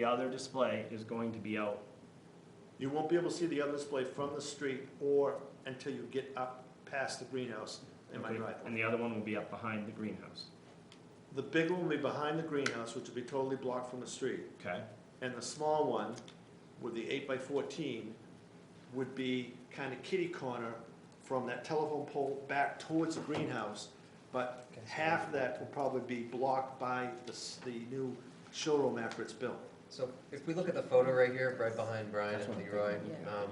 The other display is going to be out. You won't be able to see the other display from the street or until you get up past the greenhouse in my okay? driveway. And the other one will be up behind the greenhouse, The big one will be behind the greenhouse, which will be totally blocked from the street. okay? And the small one, with the eight by fourteen, would be kind of kitty corner from that telephone pole back towards the greenhouse. But half of that will probably be blocked by the, s- the new showroom after it's built. So if we look at the photo right here, right behind Brian That's and what I'm Leroy, thinking. um,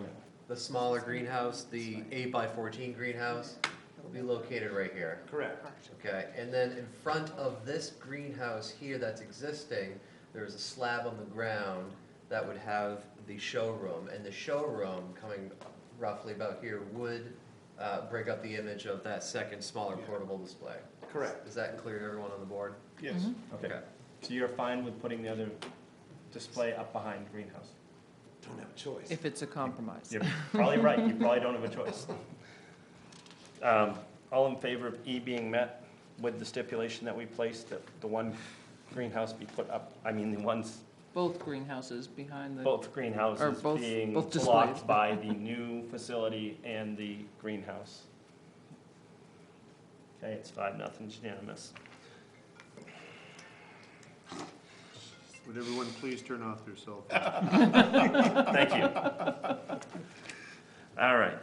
the smaller greenhouse, the eight by fourteen greenhouse, will be located right here. Correct. Okay, and then in front of this greenhouse here that's existing, there is a slab on the ground that would have the showroom, and the showroom coming roughly about here would, uh, break up the image of that second smaller Yeah. portable display. Correct. Is that clear to everyone on the board? Yes. Mm-hmm. Okay, so you're fine with putting the other display up behind the greenhouse? Don't have a choice. If it's a compromise. You're probably right, you probably don't have a choice. Um, All in favor of E being met with the stipulation that we placed, that the one greenhouse be put up, I mean, the ones, Both greenhouses behind the, both Or greenhouses both- being both displays. blocked by the new facility and the greenhouse. Okay, it's five, nothing, it's unanimous. Would everyone please turn off their cell phones? Thank you. All right.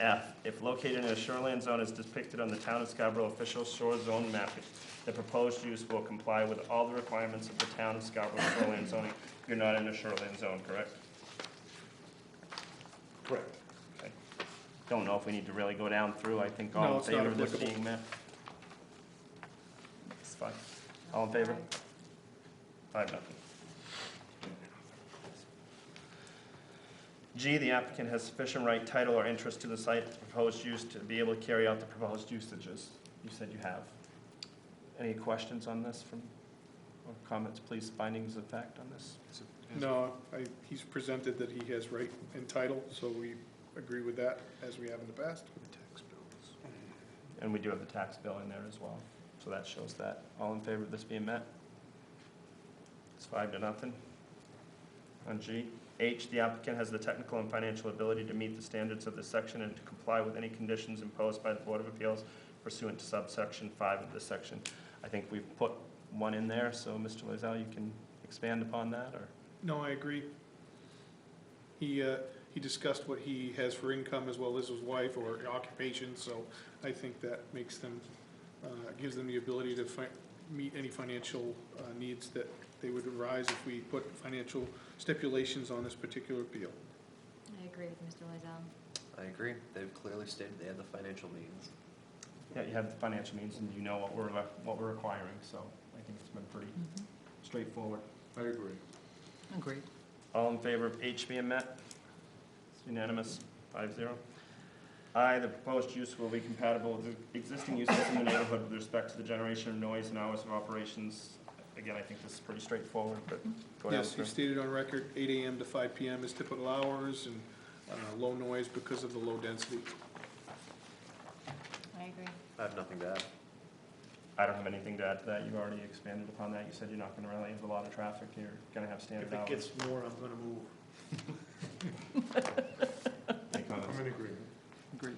F, if located in a shoreland zone as depicted on the town of Scarborough official shore zone mapping, the proposed use will comply with all the requirements of the town of Scarborough shoreland zoning. You're not in a shoreland zone, correct? Correct. Okay. Don't know if we need to really go down through. I think No, all in it's not favor of this applicable. being met. It's fine. All in favor? Five, nothing. G, the applicant has sufficient right, title, or interest to the site, the proposed use to be able to carry out the proposed usages. You said you have. Any questions on this from, or comments, please, findings of fact on this? No, I, he's presented that he has right and title, so we agree with that as we have in the past. And we do have the tax bill in there as well, so that shows that. All in favor of this being met? It's five to nothing. On G, H, the applicant has the technical and financial ability to meet the standards of this section and to comply with any conditions imposed by the Board of Appeals pursuant to subsection five of this section. I think we've put one in there, so Mr. Loizao, you can expand upon that, or? No, I agree. He, uh, he discussed what he has for income as well as his wife or occupation, so I think that makes them, uh, gives them the ability to fi- meet any financial, uh, needs that they would arise if we put financial stipulations on this particular appeal. I agree with Mr. Loizao. I agree, they've clearly stated they have the financial means. Yeah, you have the financial means and you know what we're, what we're requiring, so I think it's been pretty Mhm. straightforward. I agree. agreed. All in favor of H being met? It's unanimous, five zero. I, the proposed use will be compatible with the existing uses in the neighborhood with respect to the generation of noise and hours of operations. Again, I think this is pretty straightforward, but go down Yes, he through. stated on record, eight AM to five PM is typical hours and uh, low noise because of the low density. I agree. I have nothing to add. I don't have anything to add to that, you've already expanded upon that, you said you're not gonna really have a lot of traffic, you're gonna have If standard it hours. gets more, I'm gonna move. Any comments? in agreement. Agreed.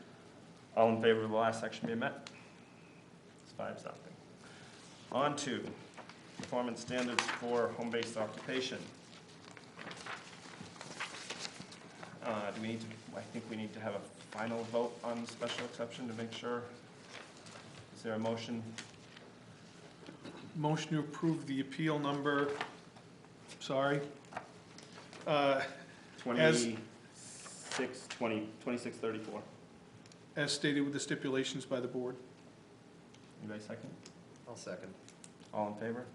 All in favor of the last section being met? It's five something. On to performance standards for home-based occupation. Uh, do we need to, I think we need to have a final vote on the special exception to make sure. Is there a motion? Motion to approve the appeal number, sorry. Uh, As- Twenty-six, twenty, twenty-six thirty-four. As stated with the stipulations by the board. Anybody second? I'll second. All in favor?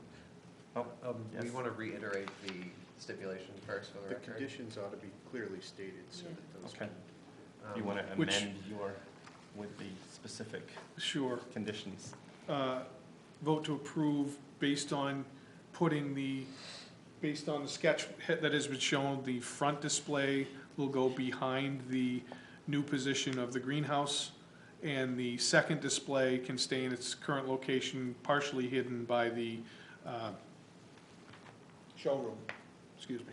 Um, we Yes. want to reiterate the stipulation first for the The record. conditions ought to be clearly stated so Yeah. that those Okay. can You Um, wanna Which- amend your, with the specific Sure. conditions? Uh, Vote to approve based on putting the, based on the sketch that has been shown, the front display will go behind the new position of the greenhouse, and the second display can stay in its current location, partially hidden by the uh, Showroom. excuse me.